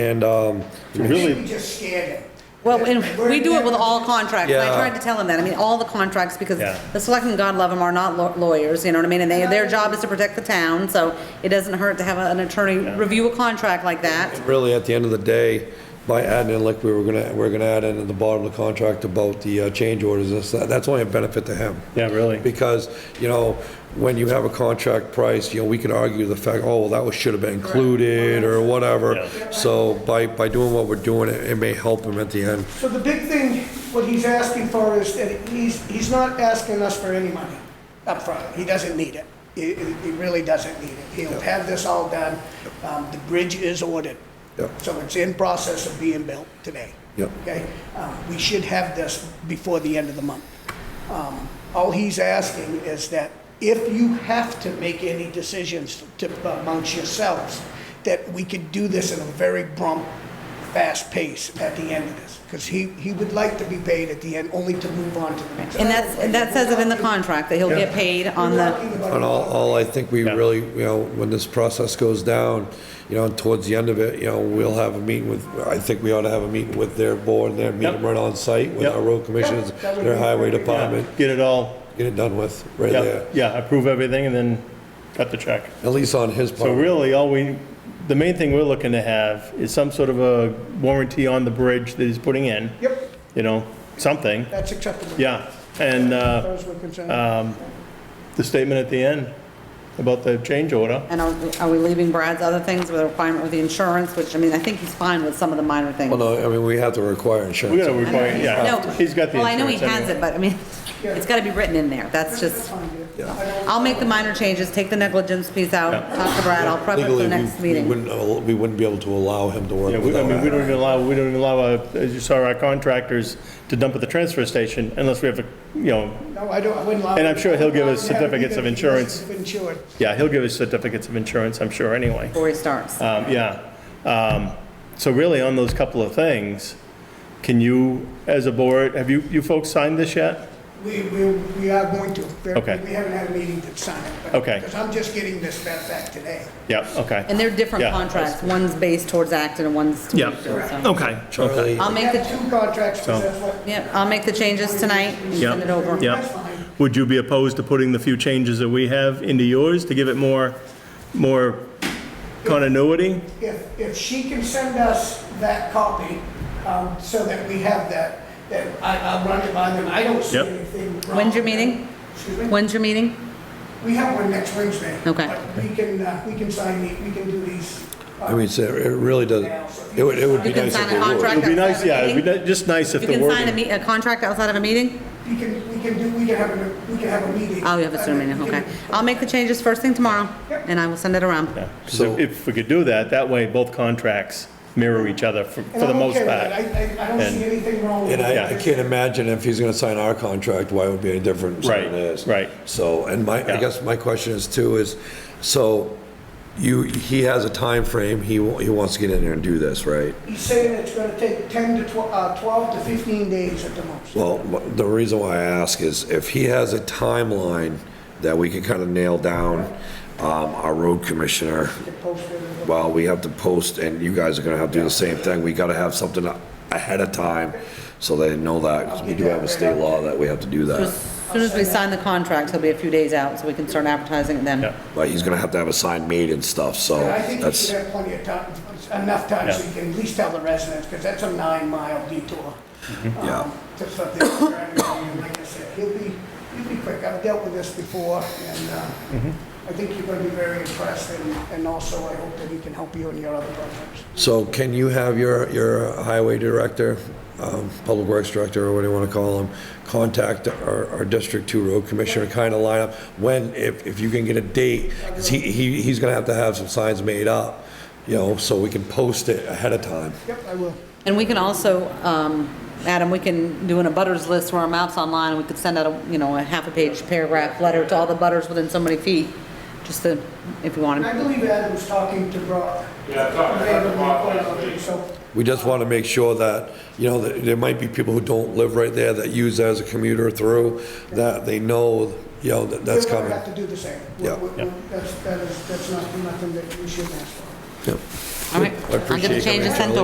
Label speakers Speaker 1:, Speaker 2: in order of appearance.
Speaker 1: And, um,
Speaker 2: Really,
Speaker 3: We just scared them.
Speaker 4: Well, and we do it with all contracts, and I
Speaker 1: Yeah.
Speaker 4: tried to tell him that, I mean, all the contracts, because
Speaker 2: Yeah.
Speaker 4: the selectmen, God love them, are not law- lawyers, you know what I mean? And they, their job is to protect the town, so it doesn't hurt to have an attorney review a contract like that.
Speaker 1: really, at the end of the day, by adding in, like, we were gonna, we're gonna add in at the bottom of the contract about the uh, change orders, and stuff, that's only a benefit to him.
Speaker 2: yeah, really.
Speaker 1: Because, you know, when you have a contract price, you know, we can argue the fact, oh, well, that was, should have been included, or whatever.
Speaker 2: Yeah.
Speaker 1: So by, by doing what we're doing, it it may help him at the end.
Speaker 3: So the big thing, what he's asking for is that he's, he's not asking us for any money up front. He doesn't need it. He, he he really doesn't need it. He'll have this all done. Um, the bridge is ordered.
Speaker 1: Yep.
Speaker 3: So it's in process of being built today.
Speaker 1: Yep.
Speaker 3: Okay? Um, we should have this before the end of the month. Um, all he's asking is that if you have to make any decisions to, uh, amongst yourselves, that we could do this in a very prompt, fast pace at the end of this. Because he, he would like to be paid at the end, only to move on to the next.
Speaker 4: And that's, and that says it in the contract, that he'll get paid on the,
Speaker 1: And all, all I think we
Speaker 2: Yeah.
Speaker 1: really, you know, when this process goes down, you know, and towards the end of it, you know, we'll have a meeting with, I think we ought to have a meeting with their board, their meeting
Speaker 2: Yep.
Speaker 1: right on site with
Speaker 2: Yep.
Speaker 1: our road commissioners,
Speaker 3: Yep, that would
Speaker 1: their
Speaker 3: be
Speaker 1: highway
Speaker 3: great.
Speaker 1: department,
Speaker 2: Get it all,
Speaker 1: get it done with, right
Speaker 2: yeah,
Speaker 1: there.
Speaker 2: yeah, approve everything and then cut the check.
Speaker 1: At least on his part.
Speaker 2: So really, all we, the main thing we're looking to have is some sort of a warranty on the bridge that he's putting in.
Speaker 3: Yep,
Speaker 2: You know, something,
Speaker 3: that's acceptable.
Speaker 2: yeah. And
Speaker 3: As far
Speaker 2: uh,
Speaker 3: as we're concerned.
Speaker 2: the statement at the end about the change order.
Speaker 4: and are are we leaving Brad's other things with a requirement with the insurance, which, I mean, I think he's fine with some of the minor things.
Speaker 1: Well, no, I mean, we have to require
Speaker 2: We gotta
Speaker 1: insurance.
Speaker 2: require,
Speaker 4: No,
Speaker 2: yeah, he's got the
Speaker 4: Well, I know he
Speaker 2: insurance
Speaker 4: has
Speaker 2: anyway.
Speaker 4: it, but I mean, it's gotta be written in there, that's just, I'll make the minor changes, take the negligence piece out,
Speaker 2: Yeah.
Speaker 4: talk to Brad, I'll prep it for
Speaker 1: Legally,
Speaker 4: the
Speaker 1: we-
Speaker 4: next
Speaker 1: we
Speaker 4: meeting.
Speaker 1: wouldn't, al- we wouldn't be able to allow him to work
Speaker 2: Yeah, we, I
Speaker 1: without
Speaker 2: mean, we
Speaker 1: that.
Speaker 2: don't even allow, we don't even allow, uh, as you saw, our contractors to dump at the transfer station unless we have a, you know,
Speaker 3: No, I don't, I wouldn't allow.
Speaker 2: And I'm sure he'll give us
Speaker 3: Yeah,
Speaker 2: certificates of insurance.
Speaker 3: he's Insured.
Speaker 2: yeah, he'll give us certificates of insurance, I'm sure, anyway.
Speaker 4: Before he starts.
Speaker 2: Um, yeah. Um, so really, on those couple of things, can you, as a board, have you, you folks signed this yet?
Speaker 3: We, we, we are going to. There-
Speaker 2: Okay.
Speaker 3: We haven't had a meeting to sign it. but-
Speaker 2: Okay.
Speaker 3: Because I'm just getting this back back today.
Speaker 2: Yeah, okay.
Speaker 4: And they're different
Speaker 2: Yeah.
Speaker 4: contracts, one's based towards Acton and one's. to
Speaker 2: Yeah,
Speaker 4: Wakefield, so.
Speaker 2: okay.
Speaker 1: Charlie,
Speaker 4: I'll
Speaker 3: We
Speaker 4: make
Speaker 3: have
Speaker 4: the,
Speaker 3: two contracts, because
Speaker 2: So-
Speaker 3: that's what.
Speaker 4: yeah, I'll make the changes tonight and send it over.
Speaker 2: Yeah.
Speaker 3: That's fine.
Speaker 2: Would you be opposed to putting the few changes that we have into yours to give it more, more continuity?
Speaker 3: If, if she can send us that copy, um, so that we have that, then I, I'll run it by them. I don't see
Speaker 2: Yep.
Speaker 3: anything wrong.
Speaker 4: When's your
Speaker 3: with that.
Speaker 4: meeting?
Speaker 3: Excuse me?
Speaker 4: When's your meeting?
Speaker 3: We have one next Wednesday.
Speaker 4: Okay.
Speaker 3: But we can, uh, we can sign the, we can do these. uh,
Speaker 1: I mean, it's- it really doesn't, it would, it would be
Speaker 4: You can
Speaker 1: nice
Speaker 4: sign
Speaker 1: if
Speaker 4: a
Speaker 1: they would.
Speaker 4: contract.
Speaker 2: It'd be nice, yeah, it'd be
Speaker 4: Meeting?
Speaker 2: ni- just nice if
Speaker 4: You
Speaker 2: the
Speaker 4: can sign a,
Speaker 2: wording.
Speaker 4: me- a contract outside of a meeting?
Speaker 3: We can, we can do, we can have a, we can have a meeting.
Speaker 4: Oh, you have a Zoom meeting,
Speaker 3: We can-
Speaker 4: okay. I'll make the changes first thing tomorrow,
Speaker 3: Yep.
Speaker 4: and I will send it around.
Speaker 2: Yeah, 'cause if- if we could do that, that way both contracts mirror each other for,
Speaker 3: And
Speaker 2: for the
Speaker 3: I'm
Speaker 2: most
Speaker 3: okay with
Speaker 2: part.
Speaker 3: that. I, I, I don't
Speaker 2: And-
Speaker 3: see anything wrong with
Speaker 1: And
Speaker 3: it.
Speaker 1: I, I can't imagine if he's gonna sign our contract, why it would be any different from
Speaker 2: Right,
Speaker 1: his.
Speaker 2: right.
Speaker 1: So, and my, I
Speaker 2: Yeah.
Speaker 1: guess my question is too, is, so you, he has a time frame. he, wa- he wants to get in there and do this, right?
Speaker 3: He's saying it's gonna take ten to twelve, uh, twelve to fifteen days at the most.
Speaker 1: Well, wh- the reason why I ask is if he has a timeline that we can kind of nail down, um, our road commissioner,
Speaker 3: to post it.
Speaker 1: well, we have to post, and you guys are gonna have to do the same thing, we gotta have something ahead of time, so they know that, 'cause we do have a state law that we have to do that.
Speaker 4: As soon as we sign the contract, he'll be a few days out, so we can start advertising it then.
Speaker 2: Yeah.
Speaker 1: But he's gonna have to have a sign made and stuff, so
Speaker 3: And I think you
Speaker 1: that's,
Speaker 3: should have plenty of time, enough time so
Speaker 2: Yeah.
Speaker 3: you can at least tell the residents, because that's a nine mile detour.
Speaker 1: Mm-hmm. yeah.
Speaker 3: um, To something, and like I said, he'll be, he'll be quick. I've dealt with this before, and, uh, I think you're gonna be very impressed, and, and also I hope that he can help you in your other projects.
Speaker 1: So can you have your, your highway director, um, public works director, or what do you want to call him, contact our, our District Two Road Commissioner, kind of line up when, if, if you can get a date, because he, he, he's gonna have to have some signs made up, you know, so we can post it ahead of time.
Speaker 3: Yep, I will.
Speaker 4: And we can also, um, Adam, we can do an abutters list where our map's online, we could send out a, you know, a half a page paragraph letter to all the butters within so many feet, just to, if you want
Speaker 3: And I
Speaker 4: to.
Speaker 3: believe Adam was talking to Brock.
Speaker 5: Yeah, I talked to Dr. Bob last week.
Speaker 3: So,
Speaker 1: We just want to make sure that, you know, that there might be people who don't live right there that use that as a commuter through, that they know, you know, that that's
Speaker 3: You're gonna
Speaker 1: coming.
Speaker 3: have to do the same.
Speaker 1: Yeah.
Speaker 3: We- we- we- That's, that is, that's not, nothing that we should ask for.
Speaker 1: Yep.
Speaker 4: All right,
Speaker 1: I
Speaker 4: I'll get
Speaker 1: appreciate
Speaker 4: the
Speaker 1: you coming in,
Speaker 4: changes sent
Speaker 1: Charlie.